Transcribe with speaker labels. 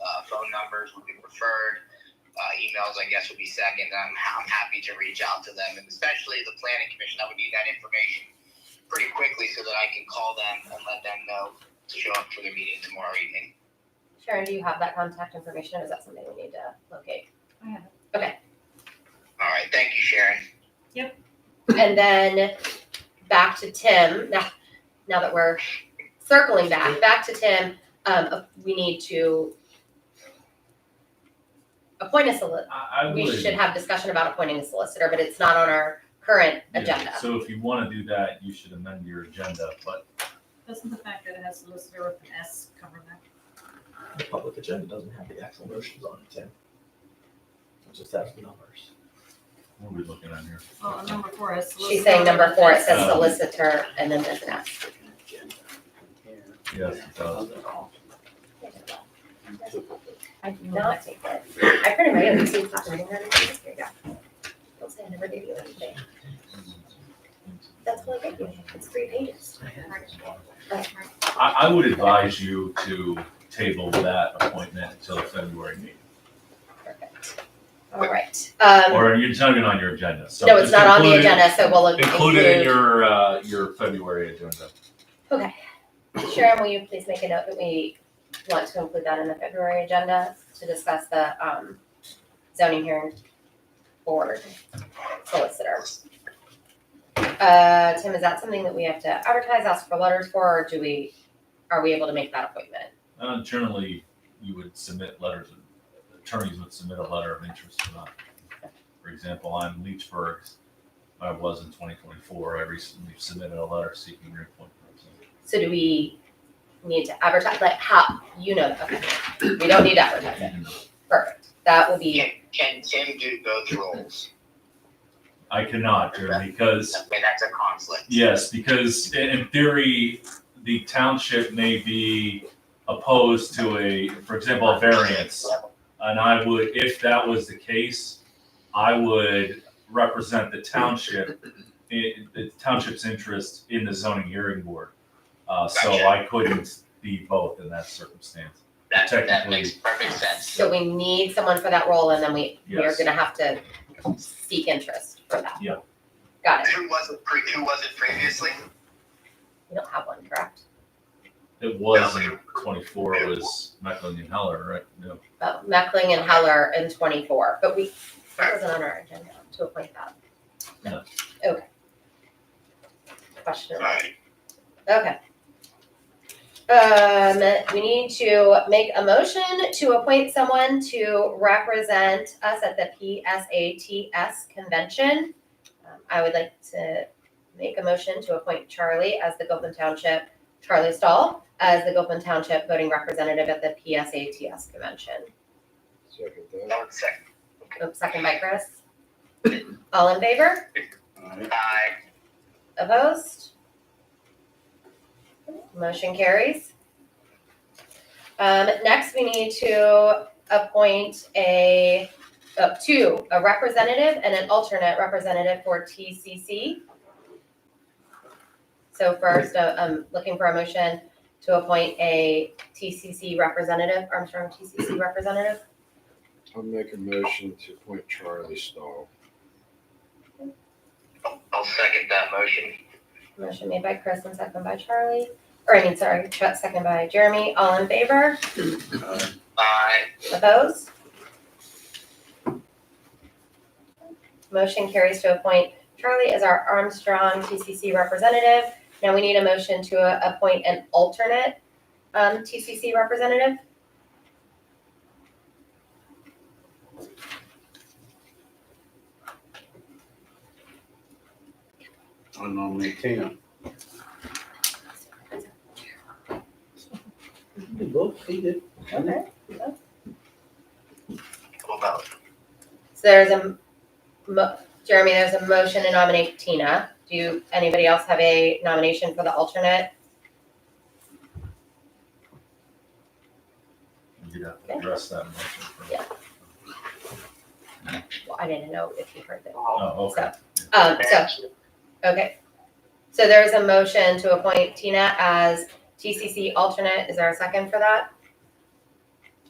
Speaker 1: uh, numbers would be preferred. Uh, emails, I guess, would be second. I'm, I'm happy to reach out to them, and especially the planning commission. I would need that information pretty quickly so that I can call them and let them know to show up for the meeting tomorrow evening.
Speaker 2: Sharon, do you have that contact information? or Is that something we need to locate?
Speaker 3: I have
Speaker 1: All right, thank you, Sharon.
Speaker 2: And then back to Tim, now, now that we're circling back, back to Tim, um, we need to appoint a solicitor.
Speaker 4: I, I
Speaker 2: We
Speaker 4: would.
Speaker 2: should have discussion about appointing a solicitor, but it's not on our current
Speaker 4: Yeah,
Speaker 2: agenda.
Speaker 4: So if you wanna do that, you should amend your agenda, but
Speaker 3: Doesn't the fact that it has solicitor with an S cover that?
Speaker 5: The public agenda doesn't have the actual motions on it, Tim. It just has the numbers.
Speaker 4: what are we looking at here?
Speaker 3: Well, on number four is solicitor.
Speaker 2: She's saying number four, it says
Speaker 4: Um,
Speaker 2: solicitor and then there's an S.
Speaker 4: Yes, it does.
Speaker 2: I do not take it. I printed my own, see, it's not writing on it. Here you go. Don't say I never gave you anything. That's all I gave you. It's three pages.
Speaker 4: I, I would advise you to table that appointment until February meeting,
Speaker 2: Perfect. All right. Um,
Speaker 4: or you're not even on your agenda, so.
Speaker 2: no, it's
Speaker 4: just
Speaker 2: not on the
Speaker 4: include it-
Speaker 2: agenda, so we'll include.
Speaker 4: Include it in your, uh, your February agenda.
Speaker 2: Sharon, will you please make a note that we want to include that in the February agenda to discuss the, um, zoning hearing board solicitor? Uh, Tim, is that something that we have to advertise, ask for letters for, or do we, are we able to make that appointment?
Speaker 4: Uh, generally, you would submit letters, of- attorneys would submit a letter of interest to that. For example, I'm Leechburg, I was in twenty twenty-four, I recently submitted a letter seeking reappointment.
Speaker 2: So do we need to advertise, like, how, you know, okay, we don't need to advertise it, perfect, that will be,
Speaker 1: Can, can Tim do both roles?
Speaker 4: I cannot, Drew, because
Speaker 1: Okay, that's a conflict.
Speaker 4: Yes, because i- in theory, the township may be opposed to a, for example, a variance. And I would, if that was the case, I would represent the township, i- the township's interest in the zoning hearing board. Uh, so
Speaker 1: Gotcha.
Speaker 4: I couldn't be both in that circumstance.
Speaker 1: That, that
Speaker 4: Technically.
Speaker 1: makes perfect sense.
Speaker 2: so we need someone for that role, and then we, we are
Speaker 4: Yes.
Speaker 2: gonna have to seek interest for that.
Speaker 4: Yeah.
Speaker 2: Got it,
Speaker 1: Who was it, pre- who was it previously?
Speaker 2: we don't have one, correct?
Speaker 4: It was in twenty-four, it was Mecklen and Heller, right? No.
Speaker 2: Oh, Meckling and Heller in twenty-four, but we, that wasn't on our agenda to appoint that.
Speaker 4: No.
Speaker 2: Okay. Question,
Speaker 1: Alright,
Speaker 2: okay. Um, we need to make a motion to appoint someone to represent us at the PSATS convention. Um, I would like to make a motion to appoint Charlie as the Gilpin Township, Charlie Stahl, as the Gilpin Township voting representative at the PSATS convention.
Speaker 1: that was second.
Speaker 2: Oops, second by Chris. All in favor?
Speaker 1: Aye.
Speaker 2: Opposed? Motion carries. Um, next, we need to appoint a, uh, two, a representative and an alternate representative for TCC. So first, uh, I'm looking for a motion to appoint a TCC representative, Armstrong TCC representative.
Speaker 6: I'll make a motion to appoint Charlie Stahl.
Speaker 1: I'll- I'll second that motion.
Speaker 2: Motion made by Chris and second by Charlie, or I mean, sorry, Chet, second by Jeremy. All in favor?
Speaker 1: Aye.
Speaker 2: Opposed? Motion carries to appoint Charlie as our Armstrong TCC representative. Now we need a motion to uh, appoint an alternate um, TCC representative.
Speaker 6: I nominate Tim.
Speaker 5: Look, he did.
Speaker 2: Okay.
Speaker 1: We'll vote.
Speaker 2: So there's a, mo- Jeremy, there's a motion to nominate Tina. Do you- anybody else have a nomination for the alternate?
Speaker 4: You'd have to address that motion. first.
Speaker 2: Yeah. Well, I didn't know if you heard that.
Speaker 4: Oh, okay.
Speaker 2: Um, so Okay. So there's a motion to appoint Tina as TCC alternate. Is there a second for that?